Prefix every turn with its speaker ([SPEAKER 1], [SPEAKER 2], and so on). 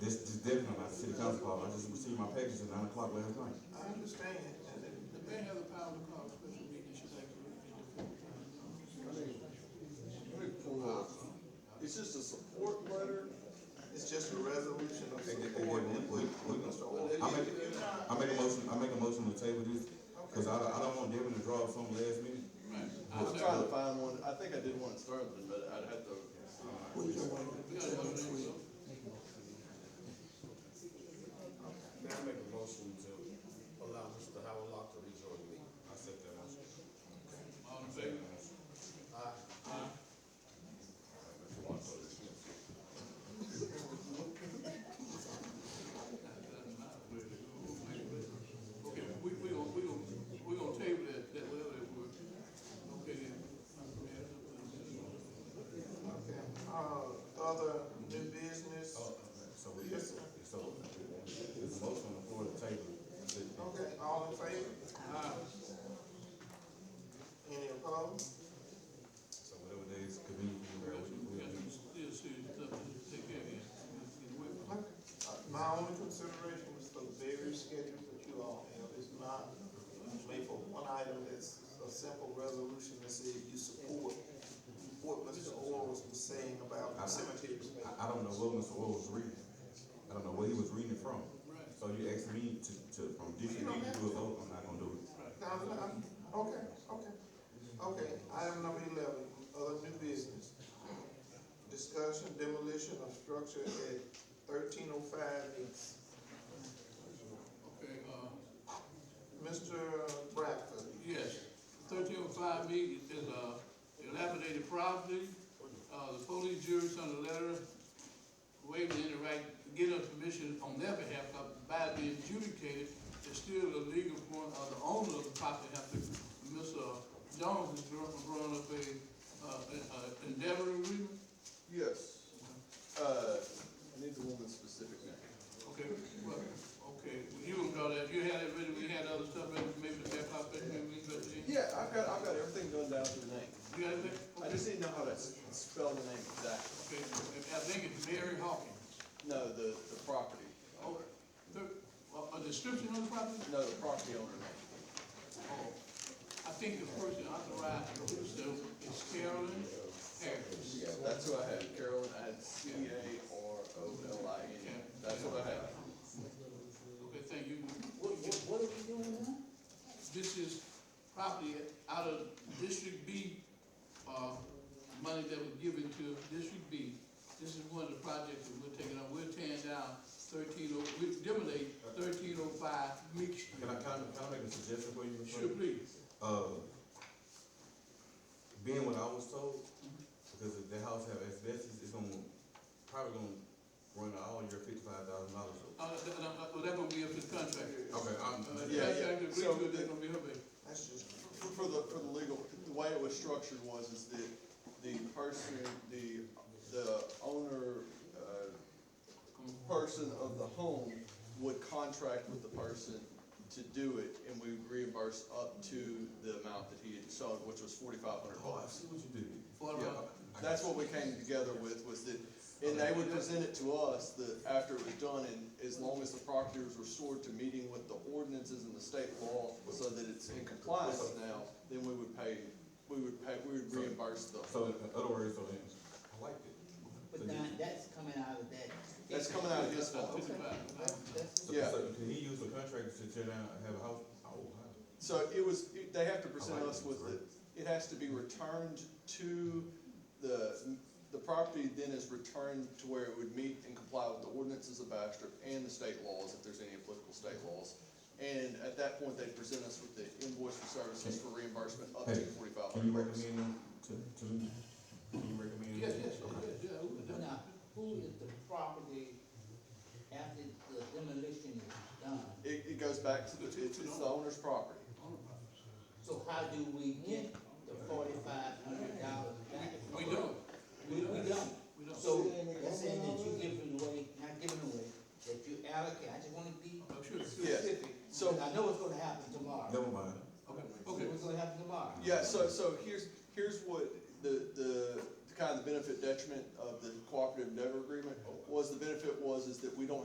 [SPEAKER 1] nine o'clock, I just received my package at nine o'clock last night.
[SPEAKER 2] I understand, and the, the mayor has the power to call a special meeting, should they?
[SPEAKER 3] Let me pull up. Uh, It's just a support letter.
[SPEAKER 2] It's just a resolution of
[SPEAKER 1] Again, again,
[SPEAKER 2] support
[SPEAKER 1] we-
[SPEAKER 2] and
[SPEAKER 1] we- we- I make, I make a motion, I make a motion to table this, cause I, I don't want Devin to draw up something last minute.
[SPEAKER 3] I'm trying to find one. I think I did one in Sterling, but I'd have to.
[SPEAKER 4] May I make a motion to allow Mr. Howard Locke to rejoin me? I said that motion.
[SPEAKER 2] Okay, we, we gonna, we gonna, we gonna table that, that whatever that word. Okay, then. Okay, uh, other new business?
[SPEAKER 1] So we, so, there's a motion on the floor to table. it.
[SPEAKER 2] Okay, all in favor? Aye. Any opposed?
[SPEAKER 1] So whatever day is convenient, we'll, we'll do.
[SPEAKER 2] My only consideration was the various schedules that you all have, it's not made for one item, it's a simple resolution that says you support what Mr. Orles was saying about cemeteries.
[SPEAKER 1] I, I don't know what Mr. Oil was reading. I don't know where he was reading it from. So you asked me to, to, from this meeting to do a vote, I'm not gonna do it.
[SPEAKER 2] Now, I'm- okay, okay, okay, item number eleven, other new business. Discussion demolition of structure at thirteen oh five east.
[SPEAKER 5] Okay, uh,
[SPEAKER 2] Mr. Bradford,
[SPEAKER 5] yes, thirteen oh five B is a dilapidated property. Uh, the police jury sent a letter waiving any right to get us permission on their behalf but by being adjudicated. It's still a legal point of the owner of the property have to, Mr. Jones is drawing, drawing up a, uh, a- a endeavor agreement.
[SPEAKER 3] Yes. Uh, I need the woman's specific name.
[SPEAKER 5] Okay, well, okay, you can draw that, you had it ready, we had other stuff, ready, maybe the back up, maybe, but you,
[SPEAKER 3] Yeah, I've got, I've got everything done down to the name.
[SPEAKER 5] you got it?
[SPEAKER 3] I just didn't know how to s- spell the name exactly.
[SPEAKER 5] Okay, I think it's Mary Hawkins.
[SPEAKER 3] No, the, the property.
[SPEAKER 5] Oh, the, a, a description of the property?
[SPEAKER 3] No, the property owner name.
[SPEAKER 5] Oh, I think the person authorized to do so is Carolyn Harris.
[SPEAKER 3] Yeah, that's who I had. Carolyn, I had C A R O L I N. That's what I had.
[SPEAKER 5] Okay, thank you.
[SPEAKER 6] What, what, what are we doing now?
[SPEAKER 5] This is property out of District B, uh, money that was given to District B. This is one of the projects that we're taking up. We're tearing down thirteen oh, we demolition thirteen oh five Meek Street.
[SPEAKER 1] Can I, can I, can I make a suggestion for you? Mr.
[SPEAKER 5] Sure,
[SPEAKER 1] Clerk?
[SPEAKER 5] please.
[SPEAKER 1] Uh, being what I was told, because if the house have asbestos, it's gonna, probably gonna run all your fifty-five thousand dollars.
[SPEAKER 5] Uh, that, that, that would be up to the contractor.
[SPEAKER 1] Okay, I'm,
[SPEAKER 5] Uh, yeah,
[SPEAKER 3] Yeah, yeah.
[SPEAKER 5] yeah, I agree with
[SPEAKER 3] So-
[SPEAKER 5] you, they're gonna be her baby.
[SPEAKER 2] that's just.
[SPEAKER 3] For, for the, for the legal, the way it was structured was is that the person, the, the owner, uh, person of the home would contract with the person to do it, and we would reimburse up to the amount that he had sold, which was forty-five hundred
[SPEAKER 1] oh, I
[SPEAKER 3] dollars.
[SPEAKER 1] see what you did.
[SPEAKER 5] For
[SPEAKER 3] Yeah,
[SPEAKER 5] her.
[SPEAKER 3] that's what we came together with, was that, and they would present it to us, that after it was done, and as long as the property was restored to meeting with the ordinances and the state law, so that it's in compliance now, then we would pay, we would pay, we would reimburse the,
[SPEAKER 1] So in other words, so then, I liked it. So
[SPEAKER 6] But
[SPEAKER 1] you-
[SPEAKER 6] that, that's coming out of that.
[SPEAKER 3] that's coming out of his fund.
[SPEAKER 6] That's- that's-
[SPEAKER 1] so-
[SPEAKER 3] yeah.
[SPEAKER 1] So can he use the contract to tear down, and have a house? Oh, wow.
[SPEAKER 3] So it was, it- they have to present us with it, it has to be returned to the, the property then is returned to where it would meet and comply with the ordinances of Bastrop and the state laws, if there's any applicable state laws. And at that point, they present us with the invoice for services for reimbursement up to
[SPEAKER 1] Hey,
[SPEAKER 3] forty-five
[SPEAKER 1] Can you
[SPEAKER 3] hundred bucks.
[SPEAKER 1] recommend him to, to me? Can you recommend? him?
[SPEAKER 5] Yes, yes, yes, yeah, who would that?
[SPEAKER 6] Now, who is the property after the demolition is done?
[SPEAKER 3] It, it goes back to the, it's, it's the owner's property.
[SPEAKER 6] So how do we get the forty-five hundred dollars back?
[SPEAKER 5] We don't,
[SPEAKER 6] We, we don't.
[SPEAKER 5] we don't.
[SPEAKER 6] So that's saying that you giving away, not giving away, that you allocate, I just wanna be
[SPEAKER 5] I'm sure, sure.
[SPEAKER 3] Yes.
[SPEAKER 6] specific.
[SPEAKER 3] So-
[SPEAKER 6] because I know it's gonna happen tomorrow.
[SPEAKER 1] Never mind.
[SPEAKER 5] Okay, okay,
[SPEAKER 6] It's gonna happen tomorrow.
[SPEAKER 3] Yeah, so, so here's, here's what the, the, kind of the benefit detriment of the cooperative endeavor agreement was, the benefit was is that we don't